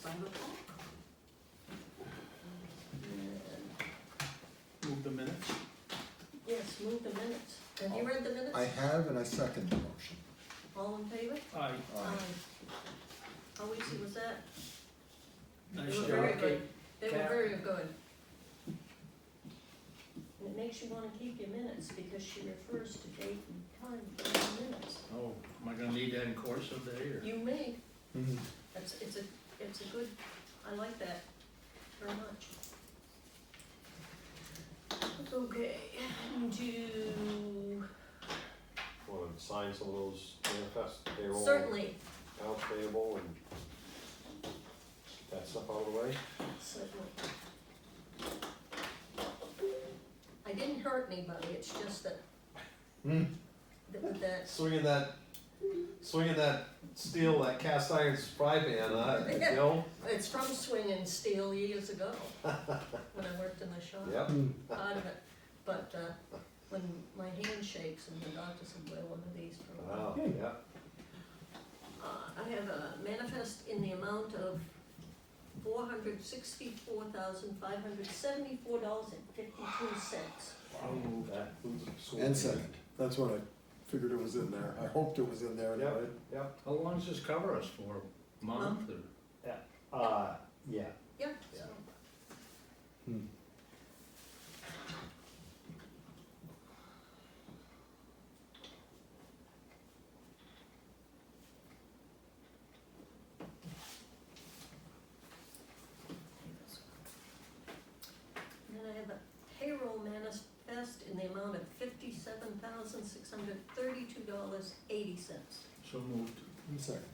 Five o'clock? Move the minutes. Yes, move the minutes. Have you read the minutes? I have and I second the motion. All in favor? Aye. Aye. How easy was that? Nice They were job. very good. They were Cat. very good. And It makes you wanna keep your minutes because she refers to date and time in the minutes. Oh, am I gonna need that in course of day or? You may, Mm-hmm. Mhm. that's, it's a, it's a good, I like that very much. Okay, do, wanna sign some of those manifest payroll, certainly, accounts payable and get that stuff out of the way. Certainly. I didn't hurt anybody, it's just that, Mm. Hmm. that, that, Swinging that, swinging that steel, that cast iron fry pan, uh, you know? it's from swinging steel years ago, when I worked in the shop, Yep, part of it. But, uh, when my hand shakes and the doctor said, wear one of these for a while. wow, Oh, yep, Uh, I have a manifest in the amount of four hundred sixty-four thousand, five hundred seventy-four dollars and fifty-two cents. I'll move that. that includes the school. And second, that's what I figured it was in there, I hoped it was in there anyway. Yep, How long does this cover us for? A Month or? uh, yeah, Yeah, Yeah. so. Hmm. And Then I have a payroll manifest in the amount of fifty-seven thousand, six hundred thirty-two dollars, eighty cents. So moved. And Second.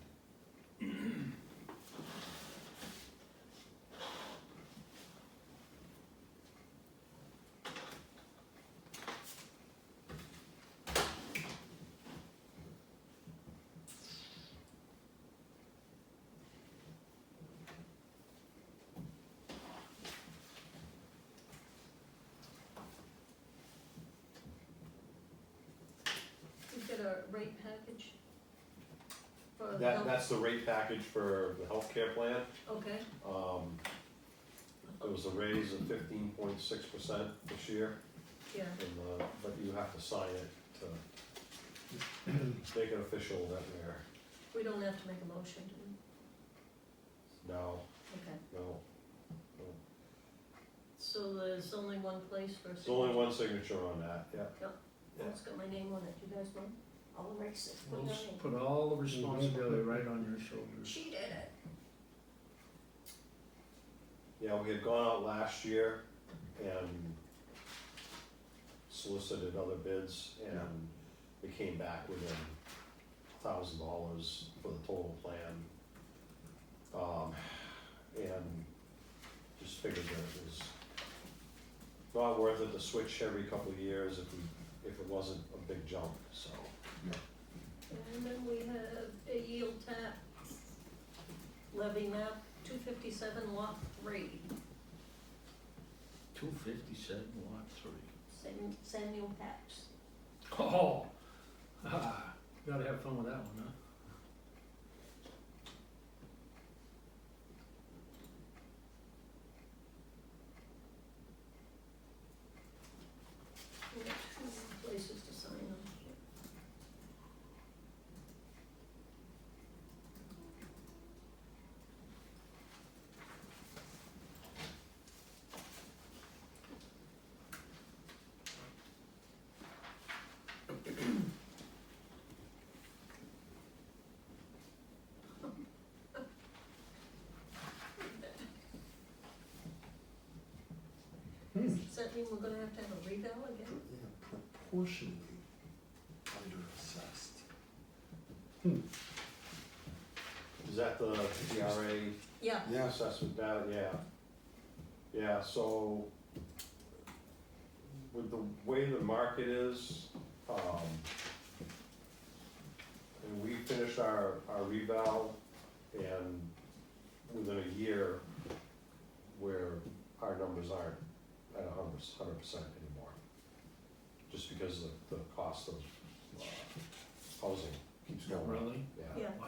Did you get a rate package? For the that, health, that's the rate package for the healthcare plan, okay, um, there was a raise of fifteen point six percent this year. yeah, And, uh, but you have to sign it to make it official that we we don't have to make a motion, do we? are, no, Okay, no. so there's only one place for. There's only one signature on that, yeah. Oh, It's got my name on it, you guys want? I'll erase it, put We'll my s- name. put all the responsibility right on your shoulders. She did it. Yeah, we had gone out last year and solicited other bids and we came back within a thousand dollars for the total plan. Um, and just figured that it was not worth it to switch every couple of years if we, if it wasn't a big jump, so. And then we have a yield tap levy map, two fifty-seven lot three, Two fifty-seven, lot three. Sam- Samuel Paps. Oh, ah, gotta have fun with that one, huh? We have two places to sign on here. Hmm. Does that mean we're gonna have to have a revale Yeah, again? proportionally underassessed. Is that the TRA Yeah, Yeah, assessment data, yeah. Yeah, so with the way the market is, um, and we finished our, our reval and within a year where our numbers aren't at a hundred, hundred percent anymore. Just because of the cost of, uh, housing keeps going up, Really? yeah. yeah,